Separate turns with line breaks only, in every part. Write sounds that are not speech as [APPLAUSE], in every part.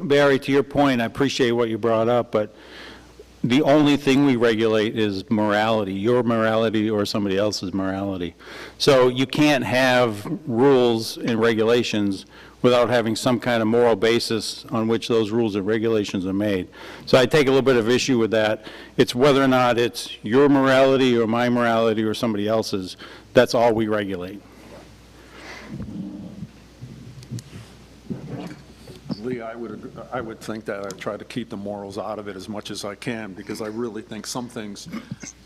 Barry, to your point, I appreciate what you brought up, but the only thing we regulate is morality, your morality or somebody else's morality. So you can't have rules and regulations without having some kind of moral basis on which those rules and regulations are made. So I take a little bit of issue with that. It's whether or not it's your morality or my morality or somebody else's, that's all we regulate.
Lee, I would, ag- I would think that I try to keep the morals out of it as much as I can, because I really think some things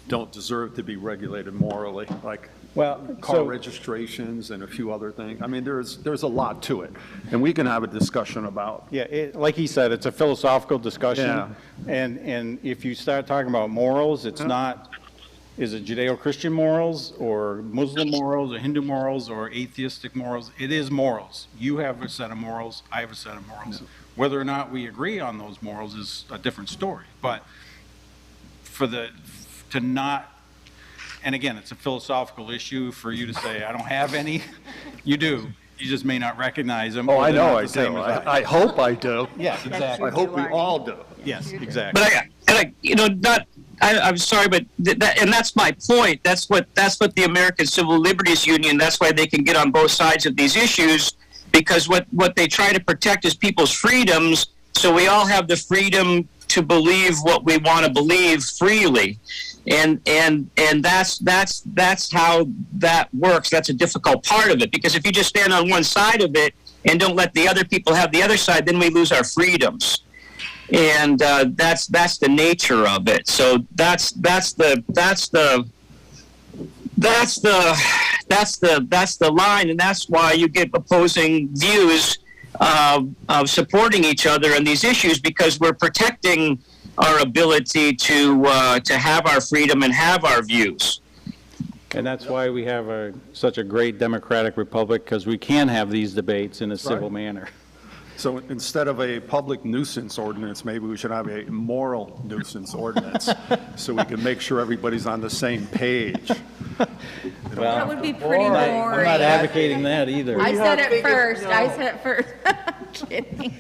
don't deserve to be regulated morally, like
Well,
car
so-
registrations and a few other things. I mean, there's, there's a lot to it, and we can have a discussion about,
Yeah, it, like he said, it's a philosophical
Yeah.
discussion. And, and if you start talking about morals, it's not, is it Judeo-Christian morals or Muslim morals or Hindu morals or atheistic morals? It is morals. You have a set of morals, I have a set of morals. Whether or not we agree on those morals is a different story. But for the, to not, and again, it's a philosophical issue for you to say, I don't have any. [LAUGHS] You do. You just may not recognize them.
oh,
or
I
they're
know
not
I
the same
do.
as I-
I I hope I do.
Yes, exactly.
I hope we all do.
Yes,
but
exactly.
I, and I, you know, not. I, I'm sorry, but th- that, and that's my point. That's what that's what the American Civil Liberties Union. That's why they can get on both sides of these issues, because what what they try to protect is people's freedoms. So we all have the freedom to believe what we want to believe freely, and and and that's that's that's how that works. That's a difficult part of it because if you just stand on one side of it and don't let the other people have the other side, then we lose our freedoms and uh, that's that's the nature of it. So that's that's the that's the that's the that's the that's the line, and that's why you get opposing views uh, of supporting each other on these issues because we're protecting our ability to uh, to have our freedom and have our views.
And that's why we have a, such a great democratic republic, because we can have these debates in a civil
right.
manner.
So instead of a public nuisance ordinance, maybe we should have a moral nuisance ordinance, so we can make sure everybody's on the same page.
That would be pretty boring.
I'm not advocating that either.
I said it first, I said it first. [LAUGHS] I'm Kidding.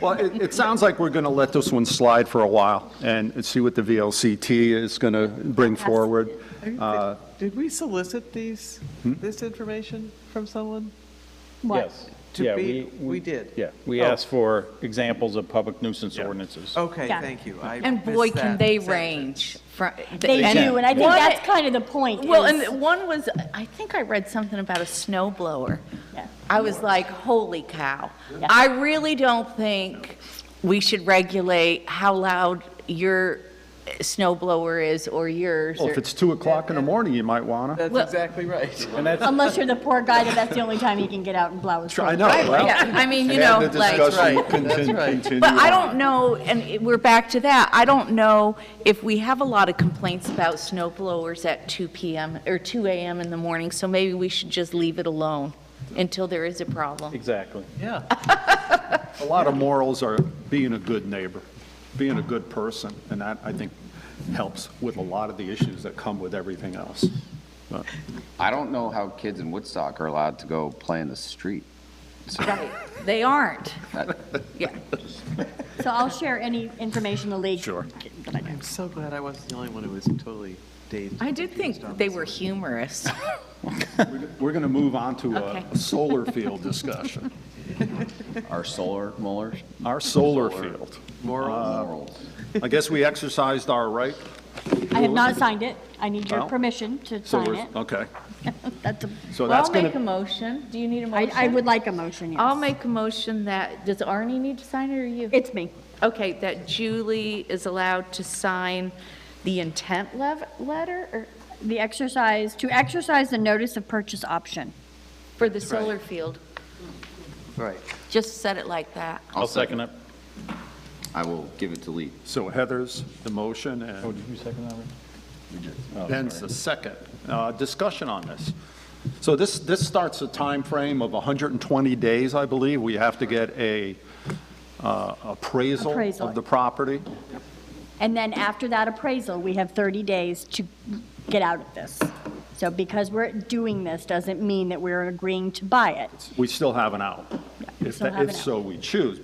Well, it, it sounds like we're going to let this one slide for a while and see what the VLCT is going to bring forward. Uh, Hmm?
Did we solicit these, this information from someone?
Yes.
To
Yeah,
be- we did.
Yeah, we
Oh.
asked for examples of public nuisance ordinances.
Okay,
Yeah.
thank you. I
And boy,
missed
can
that
they
sentence.
range from.
They
And-
do, and I think
What-
that's kind of the point.
Well,
is-
and one was, I think I read something about a snow blower.
Yeah.
I was like, holy cow.
Yeah.
I really don't think we should regulate how loud your snow blower is or yours.
Well,
or-
if it's 2 o'clock in the morning, you might want to.
That's
Well-
exactly right.
Unless you're the poor guy that that's the only time he can get out and blow his.
I
horn.
know, well.
Yeah, I mean, you know,
The
like.
discussion
That's right,
can-
that's
can
right.
continue
But I
on.
don't know, and it- we're back to that, I don't know if we have a lot of complaints about snow blowers at 2 PM, or 2 AM in the morning, so maybe we should just leave it alone until there is a problem.
Exactly.
Yeah.
[LAUGHS] A lot of morals are being a good neighbor, being a good person, and that, I think, helps with a lot of the issues that come with everything else.
I don't know how kids in Woodstock are allowed to go play in the street. So
They aren't.
that-
So I'll share any information the league. Sure.
I'm so glad I wasn't the only one who was totally dazed.
I did think they were humorous.
We're going to move on to
Okay.
a- a solar field discussion.
Our solar molars?
Our solar field.
Morals.
I guess we exercised our right.
I have not signed it. I need your
Well,
permission to
So
sign
we're-
it.
Okay,
That's a,
so
Well,
that's
I'll
going to.
make a motion, do you need a
I,
motion?
I would like a motion, yes.
I'll make a motion that, does Arnie need to sign it, or you?
It's me.
Okay, that Julie is allowed to sign the intent lev- letter, or,
The exercise, to exercise the notice of purchase option.
for the solar field,
Right.
just said it like that.
I'll second it.
I will give it to Lee.
So Heather's the motion and
Oh, did you second that? Oh,
Ben's the second. Uh, Discussion on this. So this, this starts a time frame of 120 days, I believe. We have to get a uh, appraisal
Appraisal.
of the property.
And then after that appraisal, we have 30 days to get out of this. So because we're doing this doesn't mean that we're agreeing to buy it.
We still have an out, if
still
tha-
have
if
an out.
so we choose.